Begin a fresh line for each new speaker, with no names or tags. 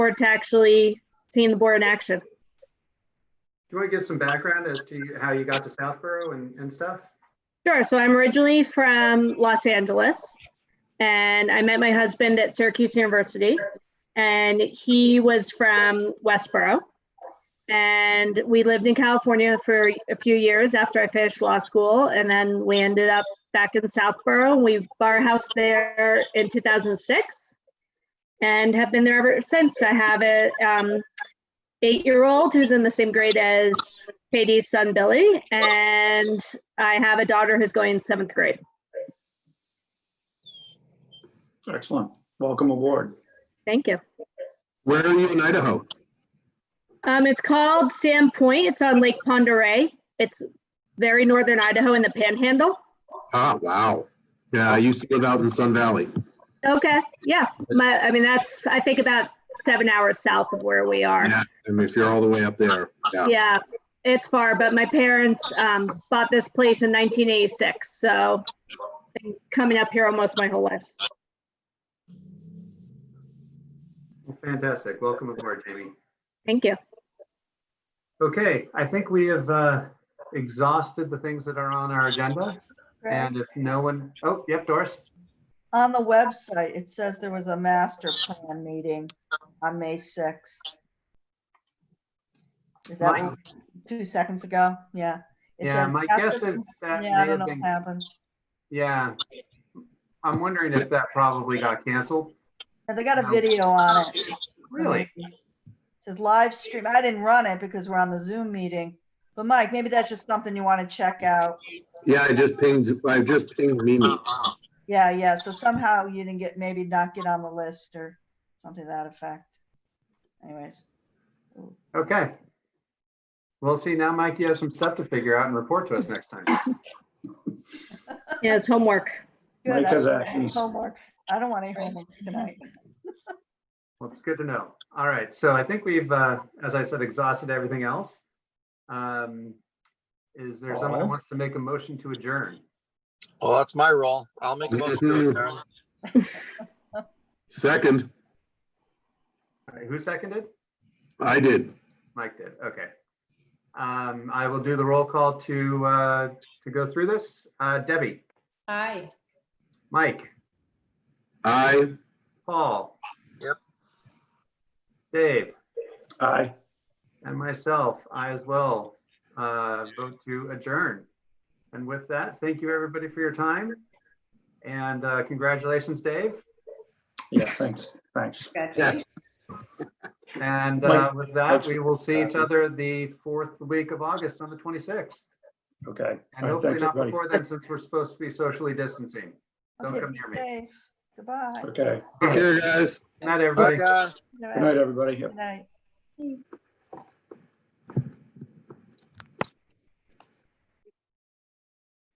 board to actually seeing the board in action.
Do you want to give some background as to how you got to Southborough and, and stuff?
Sure. So I'm originally from Los Angeles and I met my husband at Syracuse University and he was from Westboro. And we lived in California for a few years after I finished law school and then we ended up back in Southborough. We bought our house there in 2006 and have been there ever since. I have a um, eight-year-old who's in the same grade as Katie's son Billy and I have a daughter who's going seventh grade.
Excellent. Welcome aboard.
Thank you.
Where are you in Idaho?
Um, it's called Sand Point. It's on Lake Ponderay. It's very northern Idaho in the Panhandle.
Ah, wow. Yeah, I used to live out in Sun Valley.
Okay, yeah. My, I mean, that's I think about seven hours south of where we are.
Yeah, I mean, if you're all the way up there, yeah.
Yeah, it's far, but my parents um, bought this place in 1986, so been coming up here almost my whole life.
Fantastic. Welcome aboard, Jamie.
Thank you.
Okay, I think we have uh, exhausted the things that are on our agenda.
Right.
And if no one, oh, yep, Doris.
On the website, it says there was a master plan meeting on May 6th. Is that
My-
what- two seconds ago? Yeah. It
Yeah,
says
my
after
guess is
con-
that may
Yeah, I don't
have
know
been,
what happened.
yeah. I'm wondering if that probably got canceled.
Yeah, They got a
No.
video on it.
Really?
It Says live stream. I didn't run it because we're on the Zoom meeting. But Mike, maybe that's just something you want to check out.
Yeah, I just pinged, I just pinged Mimi.
Yeah, yeah. So somehow you didn't get, maybe not get on the list or something to that effect. Anyways.
Okay. Well, see, now, Mike, you have some stuff to figure out and report to us next time.
Yeah, it's homework.
good.
Mike
I
has
don't want any
acne.
Homework. I don't want any homework tonight.
Well, it's good to know. All right, so I think we've, uh, as I said, exhausted everything else. Um, Is there someone that
Paul?
wants to make a motion to adjourn?
Well, that's my role. I'll make a motion. to adjourn.
Second,
All right, Who seconded?
I did.
Mike did, okay. Um, I will do the roll call to, uh, to go through this. Uh, Debbie,
Aye.
Mike,
I,
Paul.
Yep.
Dave,
Aye.
and myself, I as well, uh, vote to adjourn. And with that, thank you, everybody, for your time. And uh, congratulations, Dave.
Yeah, thanks. Thanks.
Congratulations.
And
Mike,
uh, with that,
thanks
we
for-
will see each other the fourth week of August on the 26th.
Okay.
And
All right,
hopefully
thanks,
not
everybody.
before then, since we're supposed to be socially distancing. Don't
Okay,
come
be
near me.
safe. Goodbye.
Okay.
take care, guys.
Not
Bye,
everybody.
guys.
Good
Good night, everybody. Yep.
Good night.